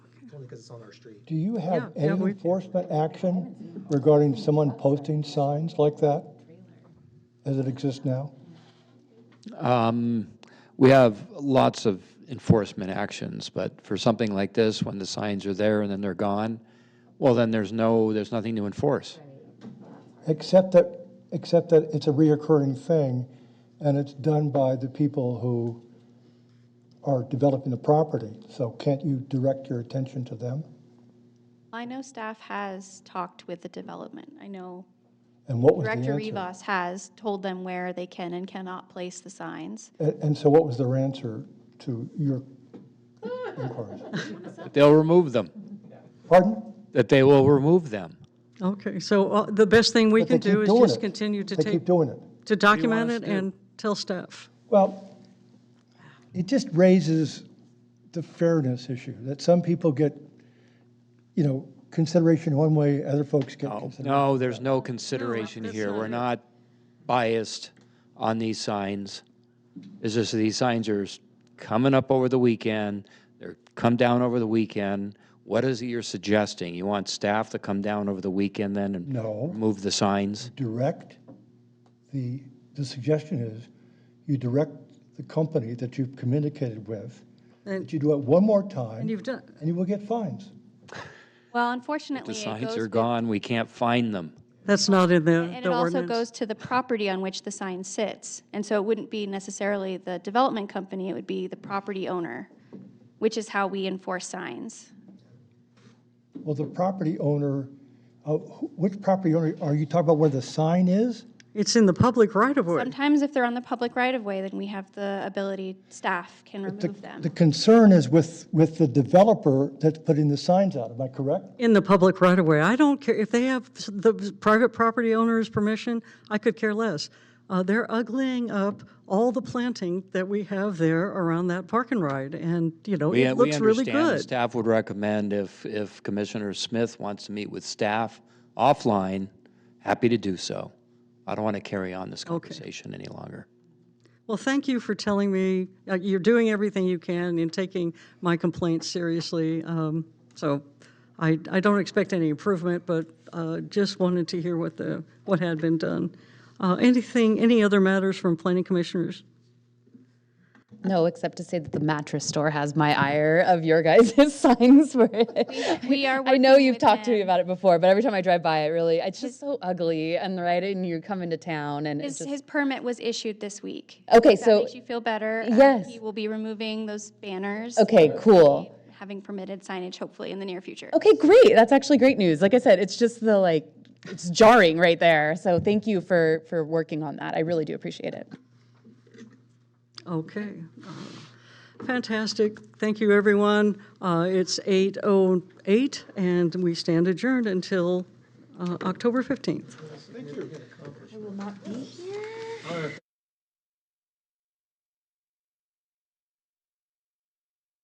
only because it's on our street. Do you have Yeah, yeah, any we- enforcement action regarding someone posting signs like that? As it exists now? We have lots of enforcement actions, but for something like this, when the signs are there and then they're gone, well, then there's no, there's nothing to enforce. Except that, except that it's a reoccurring thing, and it's done by the people who are developing the property. So can't you direct your attention to them? I know staff has talked with the development. I know And what was the Director answer? Rivas has told them where they can and cannot place the signs. A- And so what was their answer to your inquiries? But they'll remove them, Pardon? that they will remove them. Okay, so uh, the best thing we But they can keep do is doing just it. continue to They take, keep doing it. to document us it and tell staff. Well, it just raises the fairness issue, that some people get, you know, consideration one way, other folks get consideration. No, there's no consideration here. We're not biased on these signs. It's just that these signs are s- coming up over the weekend, they're come down over the weekend. What is it you're suggesting? You want staff to come down over the weekend then and No. remove the signs? Direct, the, the suggestion is, you direct the company that you've communicated with, And- that you do it one more time, And you've done, and you will get fines. Well, The unfortunately, it signs goes are with- gone, we can't find them. that's not in the And the it also ordinance. goes to the property on which the sign sits. And so it wouldn't be necessarily the development company, it would be the property owner, which is how we enforce signs. Well, the property owner, uh, wh- which property owner, are you talking about where the sign is? It's in the public right-of-way. Sometimes if they're on the public right-of-way, then we have the ability, staff can The- remove them. The concern is with, with the developer that's putting the signs out, am I correct? In the public right-of-way. I don't care, if they have s- the private property owner's permission, I could care less. Uh, They're uglying up all the planting that we have there around that park and ride, and, you know, We, it we looks really understand the good. staff would recommend if, if Commissioner Smith wants to meet with staff offline, happy to do so. I don't want to carry on this conversation any longer. Well, thank you for telling me, uh, you're doing everything you can and taking my complaints seriously. Um, So I, I don't expect any improvement, but uh, just wanted to hear what the, what had been done. Uh, Anything, any other matters from planning commissioners? No, except to say that the mattress store has my ire of your guys' signs for it. we are I know working you've with talked to me them. about it before, but every time I drive by it, really, it's just so ugly and right, and you come into town and His, it's just. his permit was issued this week. Okay, If that so- Makes you feel better. uh, Yes. He will be removing those banners. Okay, cool. Having permitted signage hopefully in the near future. Okay, great. That's actually great news. Like I said, it's just the like, it's jarring right there. So thank you for, for working on that. I really do appreciate it. Okay. Uh, Fantastic. Thank you, everyone. Uh, It's 8:08, and we stand adjourned until uh, October 15th. will not be here.